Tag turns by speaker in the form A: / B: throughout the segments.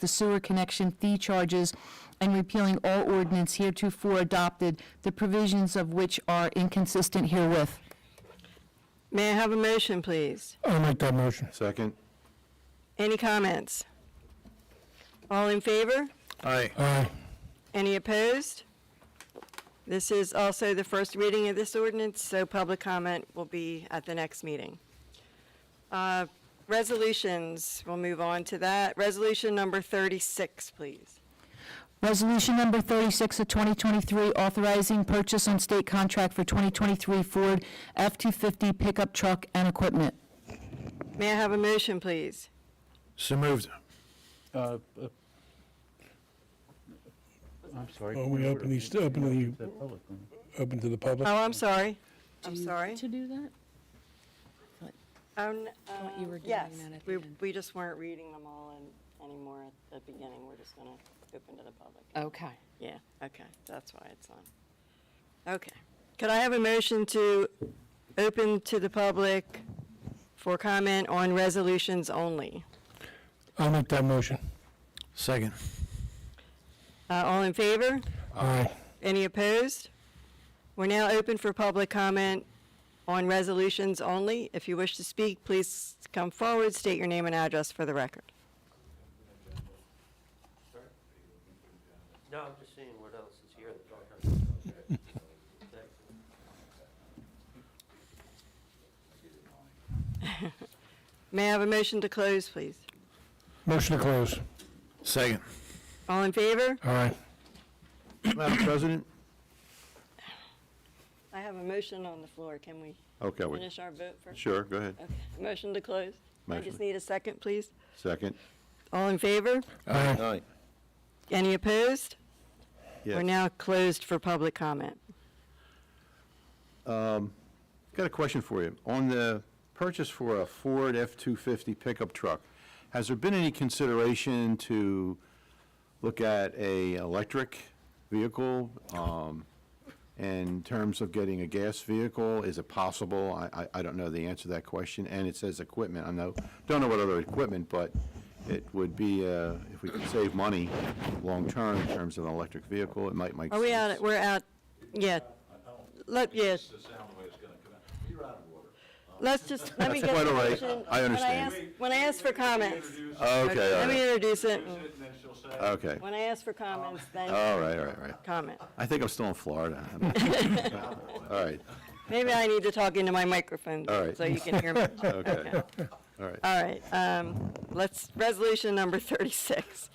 A: the sewer connection fee charges and repealing all ordinance heretofore adopted, the provisions of which are inconsistent herewith.
B: May I have a motion, please?
C: I'll make that motion.
D: Second?
B: Any comments? All in favor?
D: Aye.
C: Aye.
B: Any opposed? This is also the first reading of this ordinance, so public comment will be at the next meeting. Uh, Resolutions, we'll move on to that. Resolution number 36, please.
A: Resolution number 36 of 2023, authorizing purchase on state contract for 2023 Ford F-250 pickup truck and equipment.
B: May I have a motion, please?
D: So moved.
E: Uh, uh, I'm sorry.
C: Well, Oh, we
E: point of
C: open
E: order.
C: these- open the-
E: It's a public one.
C: Open to the public.
B: Oh, I'm sorry. I'm
F: do-
B: sorry.
F: To do that?
B: Oh, n-
F: thought you
B: uh,
F: were doing
B: Yes,
F: that at the
B: we,
F: end.
B: we just weren't reading them all in- anymore at the beginning. We're just going to open to the public.
F: Okay.
B: Yeah, okay, that's why it's on. Okay. Could I have a motion to open to the public for comment on resolutions only?
C: I'll make that motion.
D: Second.
B: Uh, All in favor?
C: Aye.
B: Any opposed? We're now open for public comment on resolutions only. If you wish to speak, please come forward, state your name and address for the record.
G: No, I'm just seeing what else is here. that-
B: May I have a motion to close, please?
C: Motion to close.
D: Second.
B: All in favor?
C: Aye.
D: Madam President?
B: I have a motion on the floor. Can we
D: Okay, we,
B: finish our vote first?
D: sure, go ahead.
B: Okay, Motion to close. I just
D: Motion.
B: need a second, please.
D: Second?
B: All in favor?
C: Aye.
D: Aye.
B: Any opposed? We're
D: Yes.
B: now closed for public comment.
D: Got a question for you. On the purchase for a Ford F-250 pickup truck, has there been any consideration to look at a electric vehicle? um, In terms of getting a gas vehicle, is it possible? I, I, I don't know the answer to that question. And it says equipment. I know, don't know what other equipment, but it would be, uh, if we could save money long-term in terms of an electric vehicle, it might make sense.
B: Are we out, we're out, yeah. Let, yeah. Let's just, let me
D: That's
B: get the
D: quite all right.
B: motion.
D: I
B: When
D: understand.
B: ask- When I ask for comments,
D: Okay, all
B: let me
D: right.
B: introduce it.
D: Okay.
B: When I ask for comments, then
D: All right, all right, all right.
B: comment.
D: I think I'm still in Florida. I don't know. All right,
B: Maybe I need to talk into my microphone
D: All right.
B: so you can hear me.
D: okay, all right.
B: All right, um, let's, resolution number 36.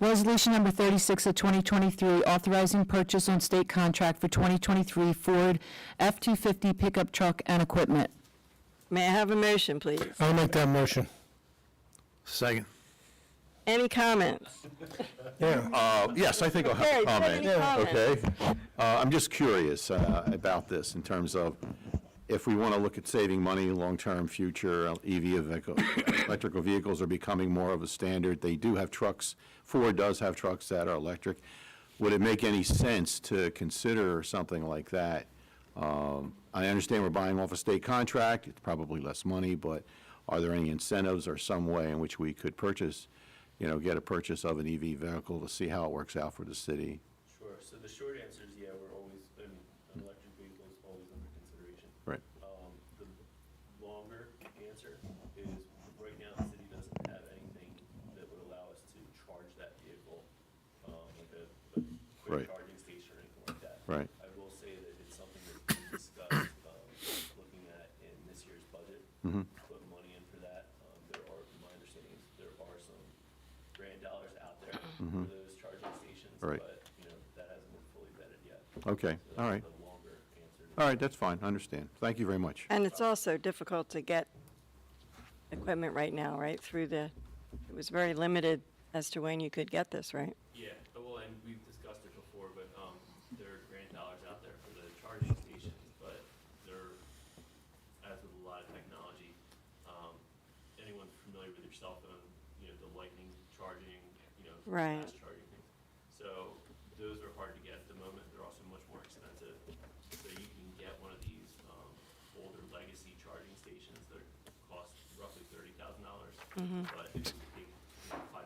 A: Resolution number 36 of 2023, authorizing purchase on state contract for 2023 Ford F-250 pickup truck and equipment.
B: May I have a motion, please?
C: I'll make that motion.
D: Second.
B: Any comments?
C: Yeah.
D: Uh, Yes, I think I'll
B: Okay,
D: have
B: do
D: a
B: you have
D: comment.
B: any comments?
D: Okay? Uh, I'm just curious uh, about this in terms of if we want to look at saving money, long-term future, uh, EV vehicle, electrical vehicles are becoming more of a standard. They do have trucks, Ford does have trucks that are electric. Would it make any sense to consider something like that? Um, I understand we're buying off a state contract, it's probably less money, but are there any incentives or some way in which we could purchase, you know, get a purchase of an EV vehicle to see how it works out for the city?
G: Sure, so the short answer is, yeah, we're always, I mean, an electric vehicle is always under consideration.
D: Right.
G: Um, the longer answer is, right now, the city doesn't have anything that would allow us to charge that vehicle, um, like a, a
D: Right.
G: quick charging station or anything like that.
D: Right.
G: I will say that it's something that we discussed, um, looking at in this year's budget.
D: Mm-hmm.
G: Put money in for that. Um, there are, my understanding is there are some grant dollars out there for those charging stations.
D: Mm-hmm. Right.
G: But, you know, that hasn't been fully vetted yet.
D: Okay,
G: So
D: all
G: that's
D: right.
G: the longer answer.
D: All right, that's fine, I understand. Thank you very much.
B: And it's also difficult to get equipment right now, right, through the, it was very limited as to when you could get this, right?
G: Yeah, well, and we've discussed it before, but, um, there are grant dollars out there for the charging stations, but they're, as with a lot of technology, um, anyone familiar with your cell phone, you know, the lightning charging, you know,
B: Right.
G: fast charging things. So those are hard to get at the moment. They're also much more expensive. So you can get one of these, um, older legacy charging stations that cost roughly thirty thousand dollars. But if you